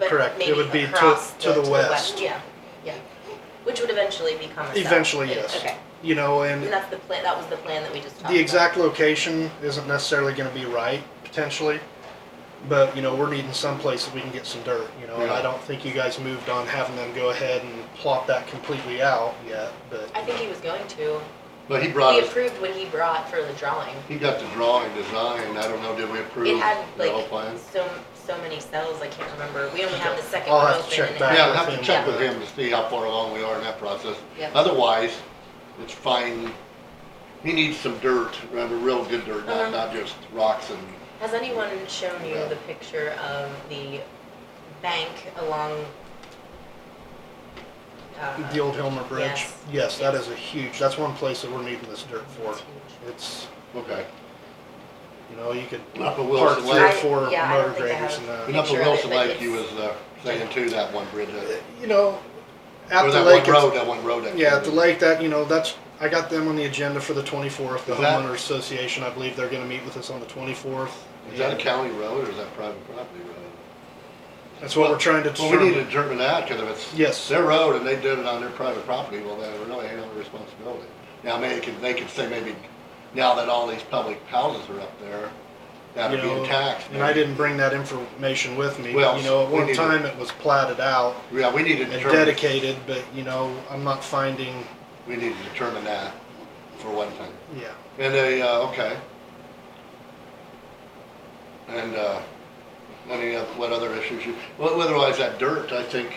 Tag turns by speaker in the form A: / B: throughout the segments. A: Correct. It
B: maybe
A: would be to-
B: across
A: to the west.
B: Yeah, yeah, which would eventually become a cell.
A: Eventually,
B: It-
A: yes.
B: Okay,
A: You know, and
B: and that's the plan, that was the plan that we just talked about.
A: the exact location isn't necessarily gonna be right, potentially. But, you know, we're needing someplace that we can get some dirt, you know, and I
C: Yeah.
A: don't think you guys moved on having them go ahead and plot that completely out yet, but.
B: I think he was going to.
C: But he brought
B: We
C: us,
B: approved what he brought for the drawing.
C: he got the drawing design, I don't know, did we
B: It
C: approve
B: had
C: the whole
B: like
C: plan?
B: so, so many cells, I can't remember. We only have the second
A: I'll
B: one
A: have to
B: open
A: check
B: and it
A: back.
B: had-
C: Yeah, we'll have to
A: Yeah.
C: check with him to see how far along we are in that process.
B: Yeah.
C: Otherwise, it's fine, he needs some dirt, rather real good dirt,
B: Uh-huh.
C: not, not just rocks and,
B: Has anyone shown you
C: Yeah.
B: the picture of the bank along? uh,
A: The old Hilmer Bridge?
B: Yes.
A: Yes, that is a huge, that's one place that we're needing this dirt for.
B: it's huge.
A: It's,
C: okay.
A: you know, you could
C: Up at
A: park
C: Wilson
A: three or
B: I-
C: Lake,
A: four
B: yeah, I don't
A: motor
B: think I
A: graders
B: have-
A: and that.
C: and up at
B: picture of it,
C: Wilson
B: but
C: Lake, you was,
B: it's-
C: uh, saying too, that one bridge, uh,
A: You know, at
C: or
A: the
C: that
A: lake,
C: one
A: it's-
C: road, that one road. that-
A: yeah, at the lake, that, you know, that's, I got them on the agenda for the twenty-fourth, the
C: Is that-
A: homeowner association, I believe they're gonna meet with us on the twenty-fourth.
C: Is that a county road or is that private property road?
A: That's what we're trying to
C: Well, we need
A: determine.
C: to determine that, because if it's.
A: Yes.
C: Their road and they did it on their private property, well, they really ain't no responsibility. Now, maybe, they could- they could say maybe, now that all these public houses are up there,
A: You
C: that'd be
A: know,
C: a tax.
A: And I didn't bring that information with me, you
C: Well,
A: know, at
C: we
A: one
C: need to-
A: time it was platted out
C: Yeah, we need to
A: and
C: determine,
A: dedicated, but, you know, I'm not finding,
C: we need to determine that for one thing.
A: yeah.
C: And they, uh, okay. And, uh, any, of- what other issues you, well, otherwise that dirt, I think,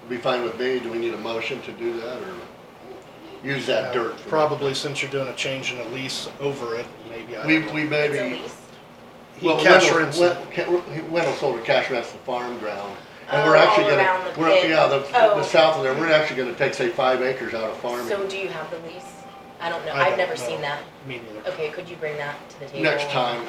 C: would be fine with me. Do we need a motion to do that or use that
A: Yeah,
C: dirt? for-
A: Uh, Probably since you're doing a change in a lease over it, maybe, I
C: We,
A: don't know.
C: we
B: It's a
C: maybe.
B: lease.
A: He
C: well,
A: cash
C: Wendell-
A: rents
C: Wen-
A: it.
C: Ca- he- Wendell sold a cash rents the farm ground. And
B: Oh,
C: we're actually
B: all
C: gonna.
B: around the
C: we're-
B: pit.
C: Yeah, the,
B: Oh.
C: the south of there, we're actually gonna take, say, five acres out of
B: So
C: farming
B: do you have the lease? I don't know.
A: I
B: I've
A: don't
B: never
A: know.
B: seen that.
A: Me neither.
B: Okay, could you bring that to the table?
C: next time.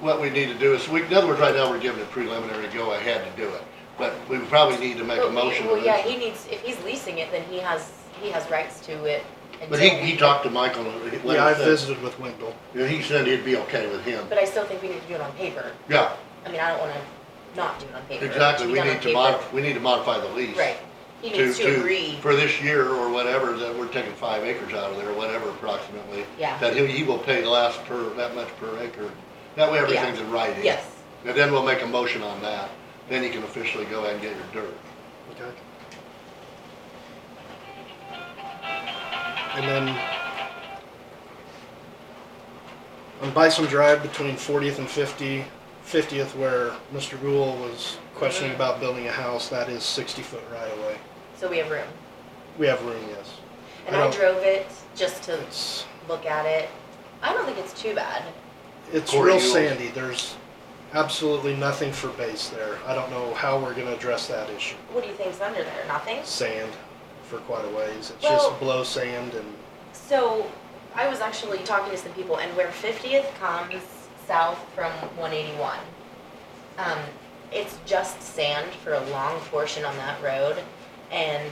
C: What we need to do is, we, in other words, right now, we're giving a preliminary go ahead to do it. But we probably need to make
B: Well,
C: a
B: he-
C: motion to
B: Well, yeah,
C: this.
B: he needs, if he's leasing it, then he has, he has rights to it.
C: But he,
B: until we-
C: he talked to Michael, and he- what
A: Yeah, I
C: he said,
A: visited with Wendell.
C: yeah, he said he'd be okay with him.
B: But I still think we need to do it on paper.
C: Yeah,
B: I mean, I don't wanna not do it on paper. It
C: exactly,
B: should be
C: we
B: done on
C: need to
B: paper.
C: mod, we need to modify the lease.
B: Right. He needs to agree.
C: For this year or whatever, that we're taking five acres out of there, whatever approximately.
B: Yeah.
C: That he, he will pay less per, that much per acre. That way everything's in writing.
B: Yes.
C: And then we'll make a motion on that, then you can officially go ahead and get your dirt.
A: Okay. And then on Bison Drive between 40th and 50, 50th, where Mr. Rule was questioning about building a house, that is 60 foot right away.
B: So we have room.
A: We have room, yes.
B: And
A: I
B: I
A: don't-
B: drove it just to
A: It's
B: look at it. I don't think it's too bad.
A: it's
C: Corey
A: real
C: Ewell's-
A: sandy. There's absolutely nothing for base there. I don't know how we're going to address that issue.
B: What do you think's under there? Nothing?
A: Sand for quite a ways. It's
B: Well-
A: just blow sand and
B: So I was actually talking to some people, and where 50th comes south from 181, um, it's just sand for a long portion on that road, and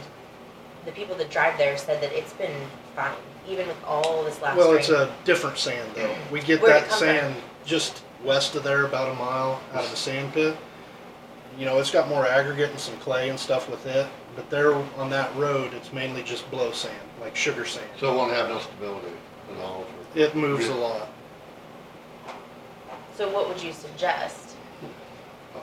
B: the people that drive there said that it's been fine, even with all this last
A: Well,
B: rain.
A: it's a different sand though. We get
B: Where'd it
A: that
B: come from?
A: sand just west of there, about a mile out of the sand pit. You know, it's got more aggregate and some clay and stuff with it, but there on that road, it's mainly just blow sand, like sugar sand.
C: So it won't have no stability at all for.
A: It moves a
C: Really?
A: lot.
B: so what would you suggest?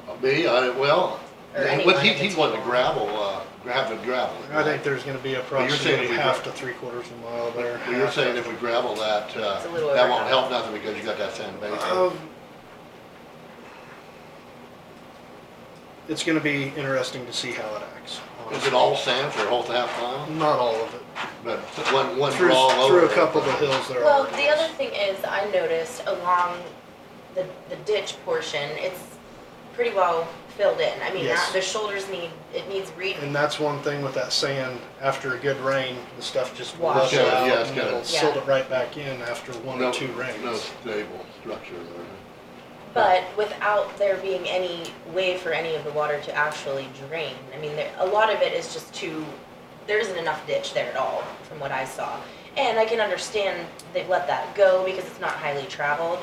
C: Uh, Me, I, well,
B: Or
C: yeah,
B: anyone
C: what he,
B: at the
C: he wanted to
B: table.
C: gravel, uh, gravel, gravel.
A: I think there's gonna be
C: you're saying
A: approximately
C: if we
A: half to
C: gra-
A: three quarters of a mile there.
C: Well, You're
A: half-
C: saying if we gravel that, uh,
B: It's a little
C: that
B: over
C: won't
B: half.
C: help nothing because you got that sand base.
A: Um, It's gonna be interesting to see how it acts.
C: Is it all sand for a whole half mile?
A: Not all of it.
C: But one, one
A: Through,
C: draw over.
A: through a
C: it.
A: couple of the hills there.
B: Well,
A: are
B: the other thing is, I noticed along the, the ditch portion, it's pretty well filled in. I mean,
A: Yes.
B: that, the shoulders need, it needs re,
A: And that's one thing with that sand, after a good rain, the stuff just
B: Washes
A: washes
C: out.
A: out
C: Yeah, it's
A: and
C: got
A: it'll
C: it.
A: silt it right back in after one
C: No-
A: or two
C: No
A: rains.
C: stable structure there.
B: But without there being any way for any of the water to actually drain, I mean, there, a lot of it is just too, there isn't enough ditch there at all, from what I saw. And I can understand they've let that go because it's not highly traveled,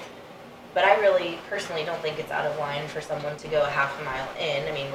B: but I really personally don't think it's out of line for someone to go a half a mile in. I mean,